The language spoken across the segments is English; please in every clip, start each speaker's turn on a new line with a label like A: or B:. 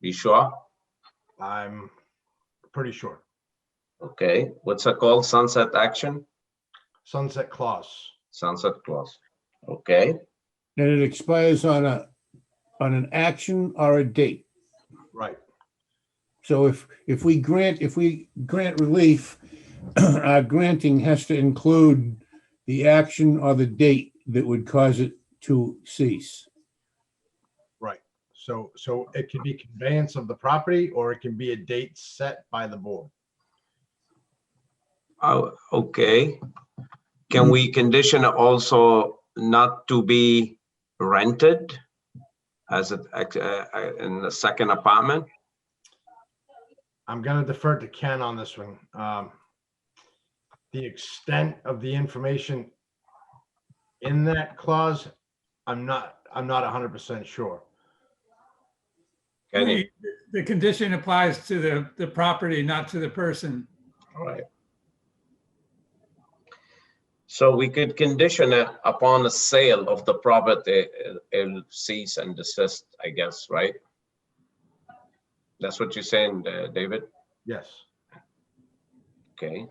A: You sure?
B: I'm pretty sure.
A: Okay, what's it called? Sunset action?
B: Sunset clause.
A: Sunset clause. Okay,
C: And it expires on a, on an action or a date.
B: Right.
C: So if, if we grant, if we grant relief, our granting has to include the action or the date that would cause it to cease.
B: So, so it could be conveyance of the property or it can be a date set by the board.
A: oh, okay. Can we condition also not to be rented? As a, uh, in the second apartment?
B: I'm gonna defer to Ken on this one. Um, The extent of the information in that clause, I'm not, I'm not hundred percent sure.
A: Can you?
D: The the condition applies to the, the property, not to the person.
A: All right. So we could condition it upon the sale of the property, it- it'll cease and desist, I guess, right? That's what you're saying, uh, David?
B: Yes.
A: Okay.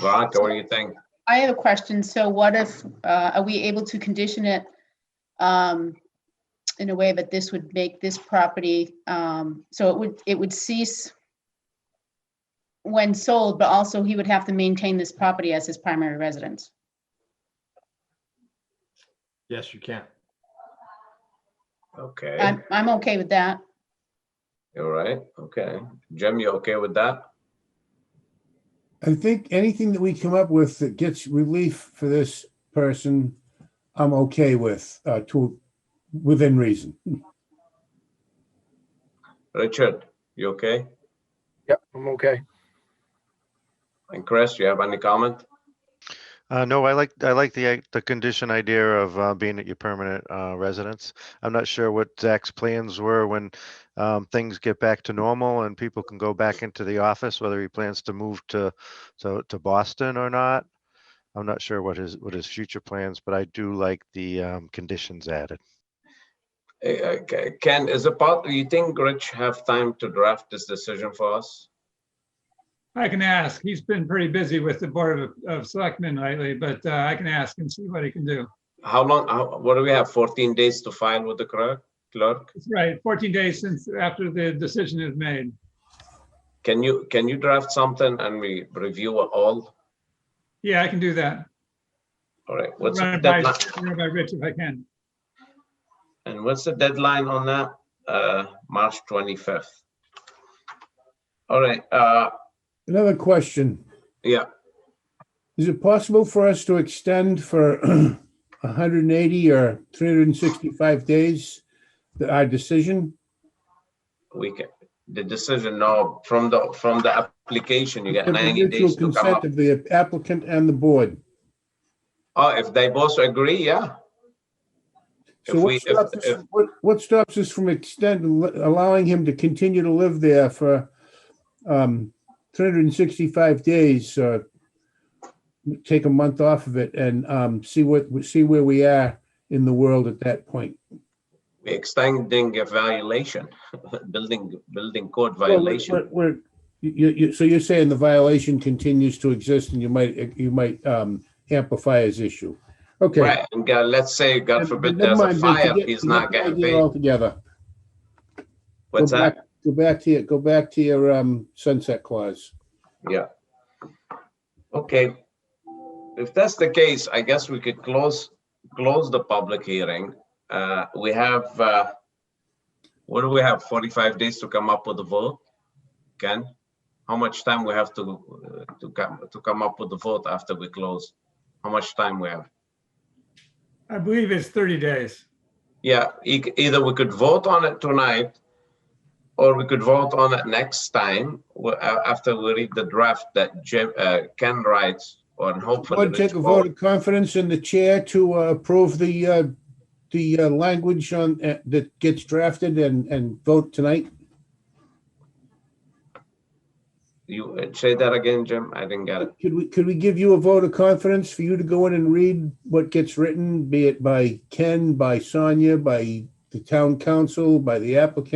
A: Veronica, what do you think?
E: I have a question. So what if, uh, are we able to condition it um, in a way that this would make this property, um, so it would, it would cease when sold, but also he would have to maintain this property as his primary residence?
B: Yes, you can.
A: Okay,
E: I'm, I'm okay with that.
A: all right, okay. Jim, you okay with that?
C: I think anything that we come up with that gets relief for this person, I'm okay with, uh, to, within reason.
A: Richard, you okay?
F: Yep, I'm okay.
A: And Chris, you have any comment?
G: Uh, no, I like, I like the, i- the condition idea of, uh, being at your permanent, uh, residence. I'm not sure what Zach's plans were when, um, things get back to normal and people can go back into the office, whether he plans to move to, to, to Boston or not. I'm not sure what his, what his future plans, but I do like the, um, conditions added.
A: Eh, eh, Ke- Ken, is it part, do you think Rich have time to draft this decision for us?
D: I can ask. He's been pretty busy with the Board of, of Selectmen lately, but uh, I can ask and see what he can do.
A: How long, how, what do we have, fourteen days to file with the clerk, clerk?
D: That's right, 14 days since, after the decision is made.
A: Can you, can you draft something and we review it all?
D: Yeah, I can do that.
A: All right, what's
D: Run
A: the
D: it by,
A: deadline,
D: run it by Rich if I can.
A: and what's the deadline on that? Uh, March twenty-fifth. All right, uh,
C: Another question,
A: yeah,
C: is it possible for us to extend for hundred and eighty or three hundred and sixty-five days the- our decision?
A: we can, the decision, no, from the, from the application, you get
C: With the
A: ninety days
C: mutual
A: to come
C: consent
A: up.
C: Of the applicant and the board.
A: Oh, if they both agree, yeah,
C: So
A: If we-
C: what
A: if-
C: stops, us-
A: if-
C: what, what stops us from extending, allowing him to continue to live there for um, 365 days? uh, Take a month off of it and um, see what, see where we are in the world at that point.
A: we extending a violation, building, building code
C: Well,
A: violation.
C: we're- we're- you, you, so you're saying the violation continues to exist and you might, you might um, amplify his issue? Okay.
A: Right, and God, let's say, God forbid,
C: Never
A: there's a
C: mind, but
A: fire,
C: forget-
A: he's
C: forget
A: not
C: the
A: getting
C: idea
A: paid.
C: Altogether.
A: What's
C: Go
A: that?
C: back- Go back to your, go back to your um, sunset clause.
A: Okay. If that's the case, I guess we could close, close the public hearing. Uh, we have, uh, what do we have, 45 days to come up with a vote? Ken, how much time we have to, uh, to come, to come up with the vote after we close? How much time we have?
D: I believe it's 30 days.
A: Yeah, e- either we could vote on it tonight, or we could vote on it next time, wh- a- after we read the draft that Jim, uh, Ken writes, or hopefully.
C: Board
A: Rich
C: take a vote
A: vote.
C: of confidence in the chair to uh, approve the, uh, the uh, language on, uh, that gets drafted and, and vote tonight?
A: You uh, say that again, Jim? I didn't get it.
C: Could we, could we give you a vote of confidence for you to go in and read what gets written, be it by Ken, by Sonia, by the town council, by the applicant?